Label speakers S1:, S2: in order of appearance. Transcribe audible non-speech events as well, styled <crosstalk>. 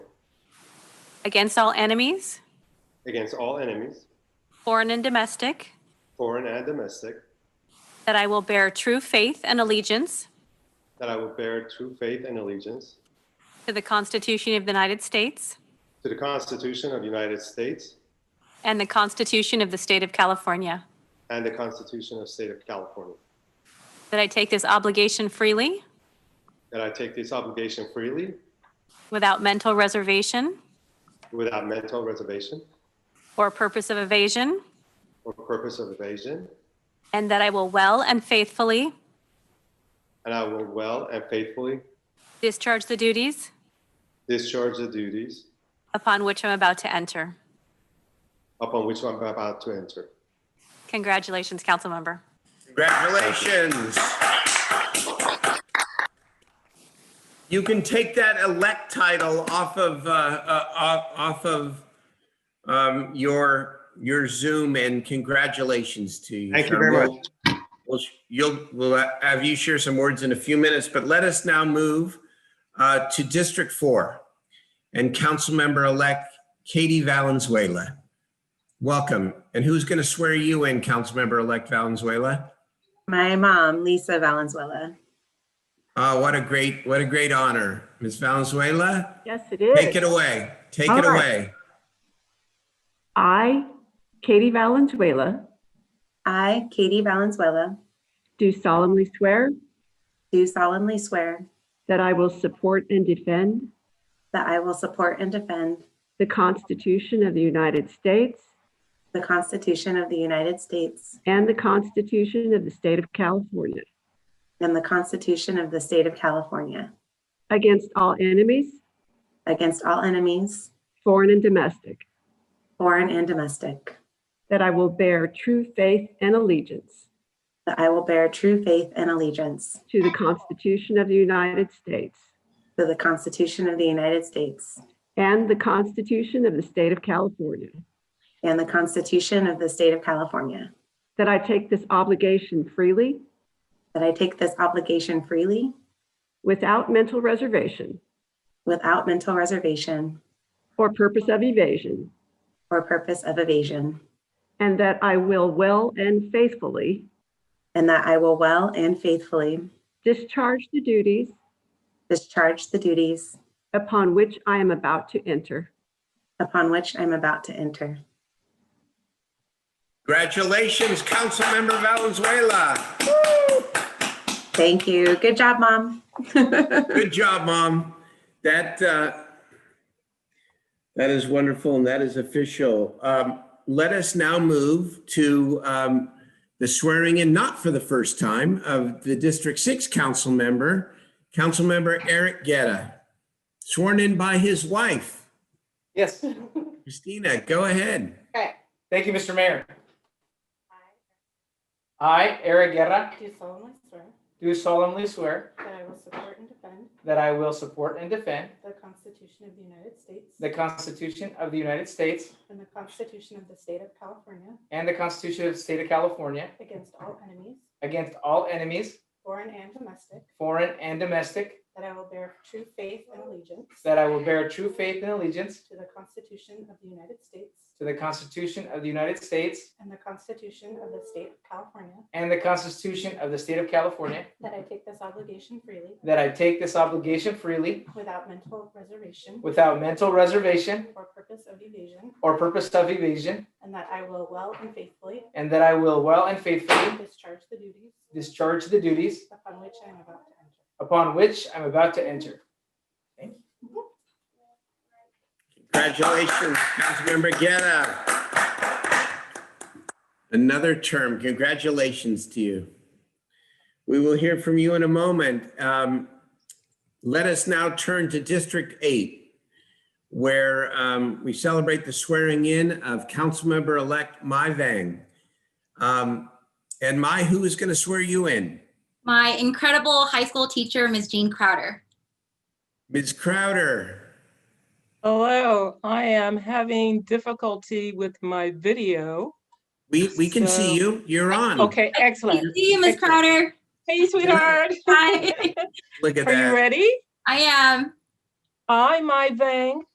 S1: against all enemies,
S2: against all enemies,
S1: foreign and domestic,
S2: foreign and domestic,
S1: that I will bear true faith and allegiance
S2: that I will bear true faith and allegiance
S1: to the Constitution of the United States
S2: to the Constitution of the United States
S1: and the Constitution of the State of California,
S2: and the Constitution of the State of California,
S1: that I take this obligation freely
S2: that I take this obligation freely
S1: without mental reservation
S2: without mental reservation
S1: or purpose of evasion,
S2: or purpose of evasion,
S1: and that I will well and faithfully
S2: and I will well and faithfully
S1: discharge the duties
S2: discharge the duties
S1: upon which I'm about to enter.
S2: upon which I'm about to enter.
S1: Congratulations, Councilmember.
S3: Congratulations. You can take that elect title off of, uh, uh, off off of um, your, your Zoom and congratulations to you.
S2: Thank you
S3: sir.
S2: very much.
S3: We'll- We'll, you'll, we'll have you share some words in a few minutes, but let us now move uh, to District Four and Councilmember-elect Katie Valenzuela. Welcome. And who's going to swear you in, Councilmember-elect Valenzuela?
S4: My mom, Lisa Valenzuela.
S3: Oh, what a great, what a great honor. Ms. Valenzuela,
S5: Yes, it
S3: take it
S5: is.
S3: away. Take
S5: All
S3: it
S5: right.
S3: away.
S5: I, Katie Valenzuela,
S4: I, Katie Valenzuela,
S5: do solemnly swear
S4: do solemnly swear
S5: that I will support and defend
S4: that I will support and defend
S5: the Constitution of the United States
S4: the Constitution of the United States
S5: and the Constitution of the State of California
S4: and the Constitution of the State of California
S5: against all enemies,
S4: against all enemies,
S5: foreign and domestic,
S4: foreign and domestic,
S5: that I will bear true faith and allegiance
S4: that I will bear true faith and allegiance
S5: to the Constitution of the United States
S4: to the Constitution of the United States
S5: and the Constitution of the State of California,
S4: and the Constitution of the State of California,
S5: that I take this obligation freely
S4: that I take this obligation freely
S5: without mental reservation
S4: without mental reservation
S5: or purpose of evasion,
S4: or purpose of evasion,
S5: And that I will well and faithfully
S4: and that I will well and faithfully
S5: discharge the duties
S4: discharge the duties
S5: upon which I am about to enter.
S4: upon which I'm about to enter.
S3: Congratulations, Councilmember Valenzuela.
S4: Thank you. Good job, Mom.
S3: Good job, Mom. That, uh, that is wonderful and that is official. Um, Let us now move to um, the swearing in, not for the first time, of the District Six council member, Councilmember Eric Getta, sworn in by his wife.
S6: Yes.
S3: Christina, go ahead.
S6: Okay. Thank you, Mr. Mayor. I, Eric Guerra,
S7: Do solemnly swear
S6: do solemnly swear
S7: that I will support and defend
S6: that I will support and defend
S7: the Constitution of the United States
S6: the Constitution of the United States
S7: and the Constitution of the State of California
S6: and the Constitution of the State of California
S7: against all enemies,
S6: against all enemies,
S7: foreign and domestic,
S6: foreign and domestic,
S7: that I will bear true faith and allegiance
S6: that I will bear true faith and allegiance
S7: to the Constitution of the United States
S6: to the Constitution of the United States
S7: and the Constitution of the State of California,
S6: and the Constitution of the State of California,
S7: that I take this obligation freely
S6: that I take this obligation freely
S7: without mental reservation
S6: without mental reservation
S7: or purpose of evasion,
S6: or purpose of evasion,
S7: and that I will well and faithfully
S6: and that I will well and faithfully
S7: discharge the duties
S6: discharge the duties
S7: upon which I am about to enter.
S6: upon which I'm about to enter.
S3: Congratulations, Councilmember Getta. Another term. Congratulations to you. We will hear from you in a moment. Um, Let us now turn to District Eight, where um, we celebrate the swearing in of Councilmember-elect Mai Vang. Um, And Mai, who is going to swear you in?
S8: my incredible high school teacher, Ms. Jean Crowder.
S3: Ms. Crowder.
S9: Hello, I am having difficulty with my video.
S3: We, we can see
S9: So-
S3: you. You're on.
S9: Okay,
S8: Hey,
S9: excellent.
S8: see you, Ms. Crowder.
S9: Hey, sweetheart.
S8: Hi.
S9: <laughs>
S3: Look at
S9: Are you
S3: that.
S9: ready?
S8: I am.
S9: I, my Vang,